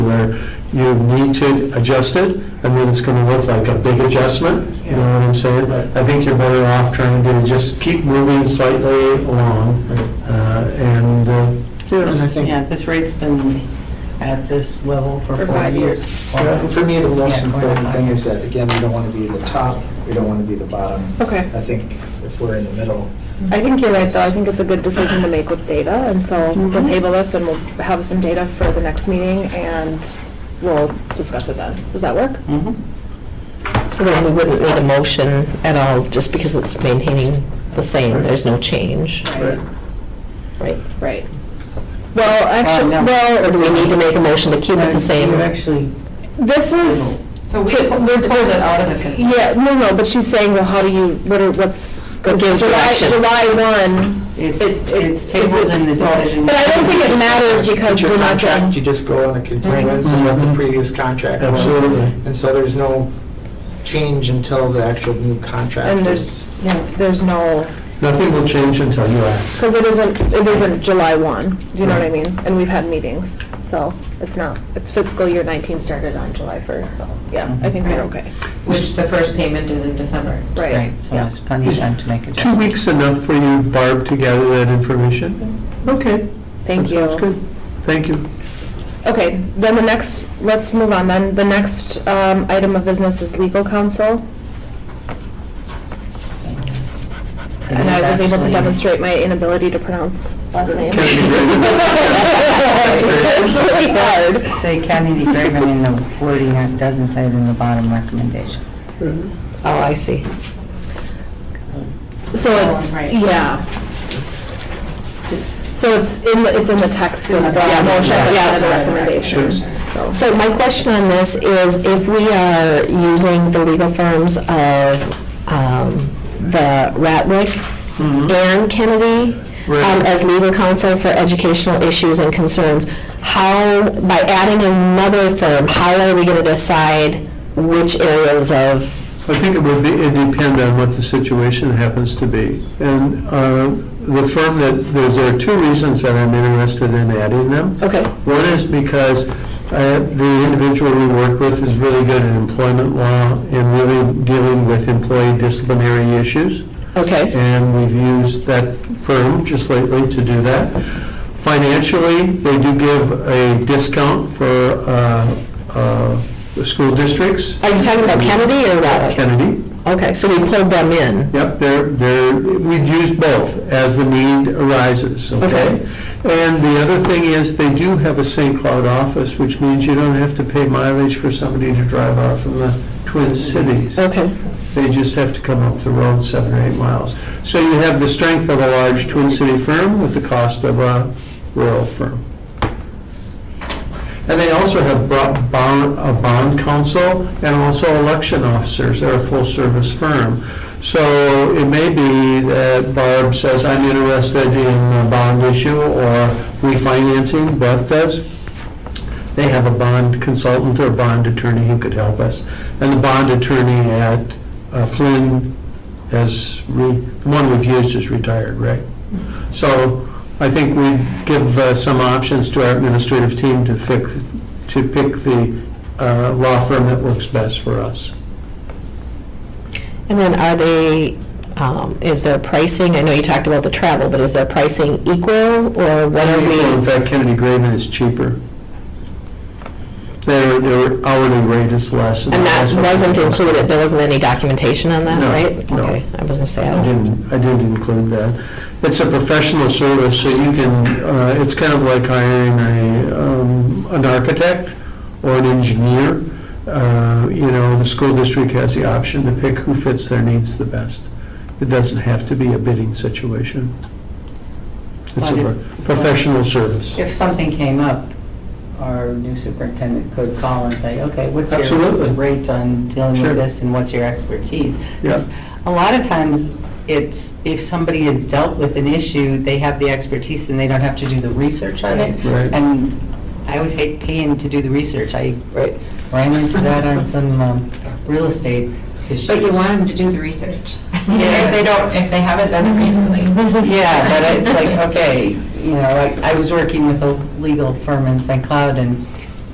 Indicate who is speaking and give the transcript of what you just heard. Speaker 1: where you need to adjust it, and then it's going to look like a big adjustment, you know what I'm saying?
Speaker 2: Right.
Speaker 1: I think you're better off trying to just keep moving slightly along, uh, and, uh, you
Speaker 2: And
Speaker 1: know,
Speaker 2: I think,
Speaker 3: Yeah, this rate's been at this level for
Speaker 4: For
Speaker 3: four
Speaker 4: five
Speaker 3: years.
Speaker 4: years.
Speaker 2: well, for me, the most
Speaker 3: Yeah.
Speaker 2: important thing is that, again, we don't want to be the top, we don't want to be the bottom.
Speaker 4: Okay.
Speaker 2: I think if we're in the middle,
Speaker 4: I think you're right, though. I think it's a good decision to make with data, and so
Speaker 3: Mm-hmm.
Speaker 4: we'll table this and we'll have some data for the next meeting, and we'll discuss it then. Does that work?
Speaker 3: Mhm.
Speaker 5: So then we wouldn't need a motion at all, just because it's maintaining the same, there's no change,
Speaker 3: Right.
Speaker 5: right?
Speaker 4: Right. Well, actually,
Speaker 3: Uh, no.
Speaker 5: Or do
Speaker 4: well,
Speaker 5: we need to make a motion to keep it the same?
Speaker 3: You actually,
Speaker 4: this
Speaker 3: Oh.
Speaker 4: is,
Speaker 6: So we
Speaker 4: To-
Speaker 6: pulled
Speaker 4: we're-
Speaker 6: it out of the consent.
Speaker 4: yeah, no, no, but she's saying, well, how do you, what are, what's,
Speaker 5: It gives
Speaker 4: July,
Speaker 5: direction.
Speaker 4: July 1.
Speaker 3: it's,
Speaker 4: It- it-
Speaker 3: it's tabled in the decision.
Speaker 4: But I don't think it matters because
Speaker 2: Teacher
Speaker 4: we're not
Speaker 2: contract,
Speaker 4: done. Mm-hmm.
Speaker 2: You just go on a continuance of what the previous contract was.
Speaker 1: Absolutely.
Speaker 2: And so there's no change until the actual new contract is.
Speaker 4: And there's, no, there's no,
Speaker 1: nothing will change until you act.
Speaker 4: because it isn't, it isn't July 1, do you know what I mean? And we've had meetings, so it's not, it's fiscal year 19 started on July 1st, so, yeah, I think we're okay.
Speaker 6: Which the first payment is in December.
Speaker 4: Right,
Speaker 3: Right, so
Speaker 4: yeah.
Speaker 3: there's plenty of time to make a
Speaker 1: Two
Speaker 3: change.
Speaker 1: weeks enough for you, Barb, to gather that information? Okay.
Speaker 4: Thank
Speaker 1: that
Speaker 4: you.
Speaker 1: Sounds good. Thank you.
Speaker 4: Okay, then the next, let's move on then. The next um, item of business is legal counsel. And I was able to demonstrate my inability to pronounce last name.
Speaker 1: Kennedy Graven.
Speaker 4: It's really
Speaker 3: It does
Speaker 4: hard.
Speaker 3: Say Kennedy Graven in the wording, it doesn't say it in the bottom recommendation.
Speaker 5: Oh, I see.
Speaker 4: So
Speaker 6: Oh,
Speaker 4: it's,
Speaker 6: right.
Speaker 4: yeah. So it's in, the it's in the text of the
Speaker 5: Yeah,
Speaker 4: motion
Speaker 5: yeah.
Speaker 4: and the recommendation, so.
Speaker 5: So my question on this is if we are using the legal firms of um, the Ratliff and Kennedy um,
Speaker 1: Mm-hmm. Right.
Speaker 5: as legal counsel for educational issues and concerns, how, by adding another firm, how are we going to decide which areas of
Speaker 1: I think it would be, it'd depend on what the situation happens to be. And uh, the firm that, there- there are two reasons that I'm interested in adding them.
Speaker 5: Okay.
Speaker 1: One is because uh, the individual we work with is really good at employment law and really dealing with employee disciplinary issues.
Speaker 5: Okay,
Speaker 1: And we've used that firm just lately to do that. Financially, they do give a discount for uh, uh, the school districts.
Speaker 5: are you talking about Kennedy or Ratliff?
Speaker 1: Kennedy.
Speaker 5: Okay, so we pulled them in.
Speaker 1: Yep, they're, they're, we'd use both as the need arises, okay? And the other thing is, they do have a St. Cloud office, which means you don't have to pay mileage for somebody to drive out from the Twin Cities.
Speaker 5: Okay,
Speaker 1: They just have to come up the road seven or eight miles. So you have the strength of a large Twin City firm with the cost of a rural firm. And they also have brought bond, a bond counsel and also election officers. They're a full-service firm. So it may be that Barb says, I'm interested in a bond issue or refinancing, Beth does. They have a bond consultant or bond attorney who could help us. And the bond attorney at uh, Flynn has, re- the one we've used is retired, right? So I think we give uh, some options to our administrative team to fix, to pick the uh, law firm that works best for us.
Speaker 5: and then are they, um, is their pricing, I know you talked about the travel, but is their pricing equal, or what are we?
Speaker 1: In fact, Kennedy Graven is cheaper. Their, their hourly rate is less.
Speaker 5: And that
Speaker 1: that's what-
Speaker 5: wasn't included, there wasn't any documentation on that,
Speaker 1: No,
Speaker 5: right?
Speaker 1: no.
Speaker 5: Okay, I was gonna say, I
Speaker 1: I
Speaker 5: don't.
Speaker 1: didn't, I didn't include that. It's a professional service, so you can, uh, it's kind of like hiring a, um, an architect or an engineer. Uh, You know, the school district has the option to pick who fits their needs the best. It doesn't have to be a bidding situation. It's a
Speaker 3: But
Speaker 1: pro-
Speaker 3: if-
Speaker 1: professional service.
Speaker 3: If something came up, our new superintendent could call and say, okay, what's your
Speaker 1: Absolutely.
Speaker 3: rate on dealing
Speaker 1: Sure.
Speaker 3: with this and what's your expertise?
Speaker 1: Yeah.
Speaker 3: 'Cause A lot of times, it's, if somebody has dealt with an issue, they have the expertise and they don't have to do the research on it.
Speaker 1: Right.
Speaker 3: And I always hate paying to do the research. I ran into that on some um, real estate issues.
Speaker 6: But you want them to do the research.
Speaker 3: Yeah.
Speaker 6: If they don't, if they haven't done it recently.
Speaker 3: Yeah, but it's like, okay, you know, like, I was working with a legal firm in St. Cloud, and